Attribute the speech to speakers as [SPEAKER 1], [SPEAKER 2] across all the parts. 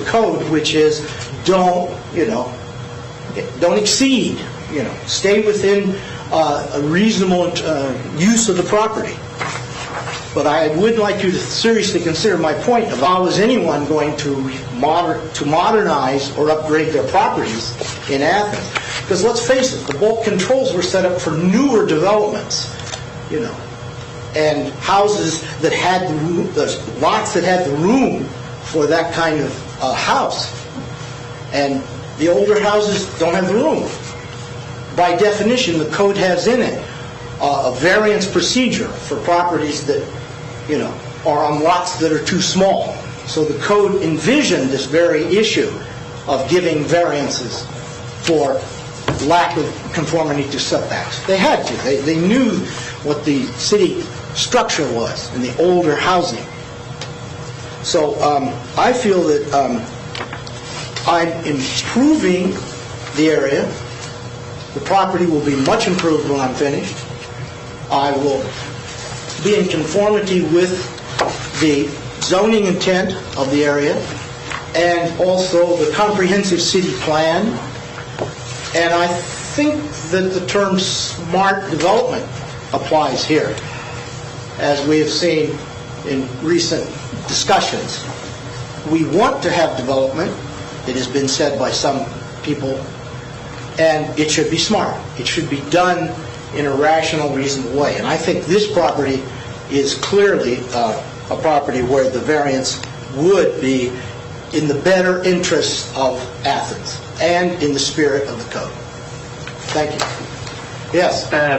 [SPEAKER 1] code, which is, don't, you know, don't exceed, you know, stay within uh, a reasonable uh, use of the property. But I would like you to seriously consider my point, if I was anyone going to moder, to modernize or upgrade their properties in Athens, because let's face it, the bulk controls were set up for newer developments, you know, and houses that had, the roo- the lots that had the room for that kind of uh, house. And the older houses don't have the room. By definition, the code has in it uh, a variance procedure for properties that, you know, are on lots that are too small. So the code envisioned this very issue of giving variances for lack of conformity to setbacks. They had to. They, they knew what the city structure was in the older housing. So um, I feel that um, I'm improving the area. The property will be much improved when I'm finished. I will be in conformity with the zoning intent of the area and also the comprehensive city plan. And I think that the term smart development applies here, as we have seen in recent discussions. We want to have development, it has been said by some people, and it should be smart. It should be done in a rational, reasonable way. And I think this property is clearly uh, a property where the variance would be in the better interests of Athens and in the spirit of the code. Thank you. Yes?
[SPEAKER 2] Uh,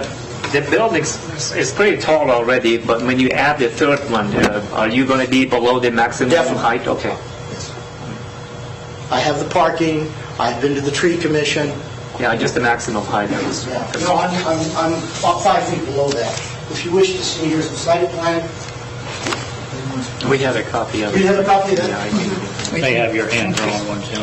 [SPEAKER 2] The building is pretty tall already, but when you add the third one, uh, are you going to be below the maximum
[SPEAKER 1] Definitely.
[SPEAKER 2] height? Okay.
[SPEAKER 1] I have the parking, I've been to the tree commission.
[SPEAKER 2] Yeah, just the maximum height. that was-
[SPEAKER 1] Yeah. No, I'm, I'm- I'm about five feet below that. If you wish to see, here's the site plan.
[SPEAKER 2] We have a copy of it.
[SPEAKER 1] Do you have a copy of that?
[SPEAKER 2] Yeah, I do.
[SPEAKER 3] They have your hand-drawn one, Jim.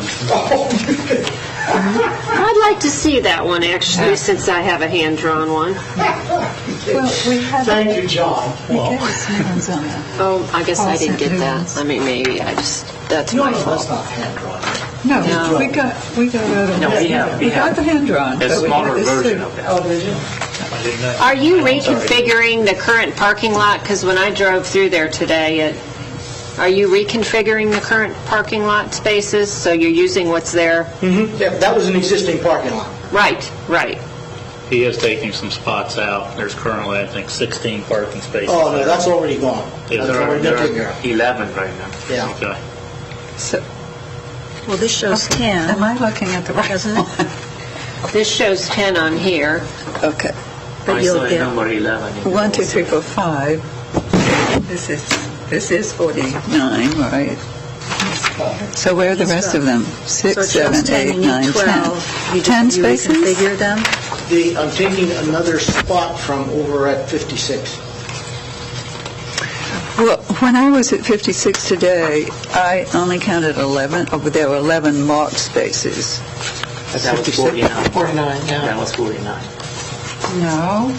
[SPEAKER 4] I'd like to see that one, actually, since I have a hand-drawn one.
[SPEAKER 5] Well, we have,
[SPEAKER 1] Thank you, John.
[SPEAKER 5] we gave us new ones on that.
[SPEAKER 4] Oh, I guess I didn't get
[SPEAKER 5] Awesome.
[SPEAKER 4] that. I mean, maybe I just, that's my
[SPEAKER 1] That's
[SPEAKER 4] fault.
[SPEAKER 1] not hand-drawn.
[SPEAKER 4] No.
[SPEAKER 5] No, we got, we got out of
[SPEAKER 2] No, we
[SPEAKER 5] that.
[SPEAKER 2] have- we
[SPEAKER 5] We got
[SPEAKER 2] have
[SPEAKER 5] the hand drawn.
[SPEAKER 2] A smaller version of
[SPEAKER 1] Oh,
[SPEAKER 2] that.
[SPEAKER 3] I didn't know.
[SPEAKER 4] Are you reconfiguring the current parking lot? Because when I drove through there today, it, are you reconfiguring the current parking lot spaces? So you're using what's there?
[SPEAKER 1] Yeah, That was an existing parking lot.
[SPEAKER 4] Right, right.
[SPEAKER 3] He is taking some spots out. There's currently, I think, 16 parking spaces.
[SPEAKER 1] Oh, no, that's already gone.
[SPEAKER 3] Yeah,
[SPEAKER 1] That's
[SPEAKER 3] there are-
[SPEAKER 1] already
[SPEAKER 2] There
[SPEAKER 1] been
[SPEAKER 2] are
[SPEAKER 1] taken care of.
[SPEAKER 2] 11 right now.
[SPEAKER 1] Yeah.
[SPEAKER 3] Okay.
[SPEAKER 4] So
[SPEAKER 6] Well, this shows 10,
[SPEAKER 5] Am I looking at the right?
[SPEAKER 6] doesn't it?
[SPEAKER 4] this shows 10 on here.
[SPEAKER 5] Okay.
[SPEAKER 2] I
[SPEAKER 6] But
[SPEAKER 2] saw
[SPEAKER 6] you'll
[SPEAKER 2] the
[SPEAKER 6] get
[SPEAKER 2] number 11. in
[SPEAKER 5] One,
[SPEAKER 2] the
[SPEAKER 5] two, three,
[SPEAKER 2] book.
[SPEAKER 5] four, five. This is, this is 49, right? So where are the rest of them? Six,
[SPEAKER 6] So it shows
[SPEAKER 5] seven,
[SPEAKER 6] 10
[SPEAKER 5] eight,
[SPEAKER 6] and you
[SPEAKER 5] nine, 10.
[SPEAKER 6] 12. You
[SPEAKER 5] 10
[SPEAKER 6] just you
[SPEAKER 5] spaces?
[SPEAKER 6] reconfigure them?
[SPEAKER 1] The, I'm taking another spot from over at 56.
[SPEAKER 5] Well, when I was at 56 today, I only counted 11, oh, but there were 11 marked spaces.
[SPEAKER 2] But That was 49.
[SPEAKER 1] 49, yeah.
[SPEAKER 2] That was 49.
[SPEAKER 5] No.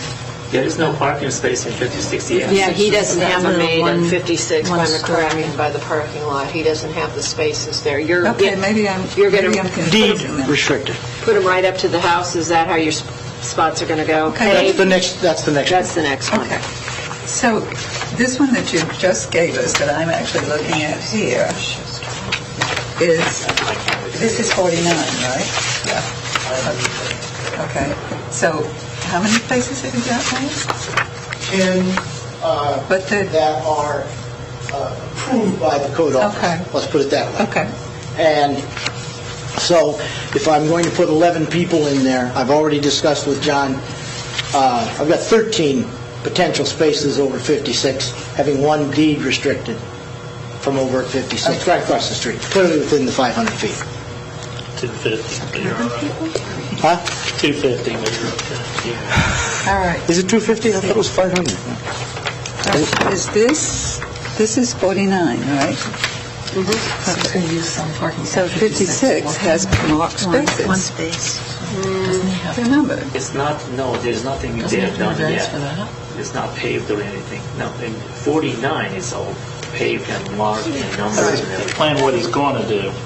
[SPEAKER 2] There is no parking space in 56 yet.
[SPEAKER 4] Yeah, he doesn't have a made in
[SPEAKER 7] One-
[SPEAKER 4] 56, if
[SPEAKER 7] one
[SPEAKER 4] I'm
[SPEAKER 7] story.
[SPEAKER 4] correct, and by the parking lot. He doesn't have the spaces there. You're,
[SPEAKER 5] Okay, maybe I'm,
[SPEAKER 4] You're gonna
[SPEAKER 5] maybe I'm
[SPEAKER 1] Deed
[SPEAKER 5] confusing them.
[SPEAKER 1] restricted.
[SPEAKER 4] put them right up to the house, is that how your sp- spots are going to go?
[SPEAKER 5] Okay.
[SPEAKER 1] That's
[SPEAKER 4] Paved?
[SPEAKER 1] the next, that's the next. one.
[SPEAKER 4] That's the next one.
[SPEAKER 5] Okay. So this one that you just gave us, that I'm actually looking at here, is, this is 49, right? Yeah. Okay. So how many spaces have you got there?
[SPEAKER 1] 10 uh,
[SPEAKER 5] But the,
[SPEAKER 1] that are uh, approved by the code
[SPEAKER 5] Okay.
[SPEAKER 1] office. Let's put it that way.
[SPEAKER 5] okay,
[SPEAKER 1] And so if I'm going to put 11 people in there, I've already discussed with John, uh, I've got 13 potential spaces over 56, having one deed restricted from over at 56, right across the street, clearly within the 500 feet.
[SPEAKER 3] 250, but you're all right.
[SPEAKER 1] Huh?
[SPEAKER 3] 250, but you're okay.
[SPEAKER 5] all right.
[SPEAKER 1] Is it 250? I thought it was 500.
[SPEAKER 5] Is this, this is 49, right? So 56 has marked
[SPEAKER 6] One, one
[SPEAKER 5] spaces.
[SPEAKER 6] space.
[SPEAKER 5] They're numbered.
[SPEAKER 2] It's not, no, there's nothing there done yet. It's not paved or anything. No, and 49 is all paved and marked and numbers and everything.
[SPEAKER 3] Plan what he's going to do.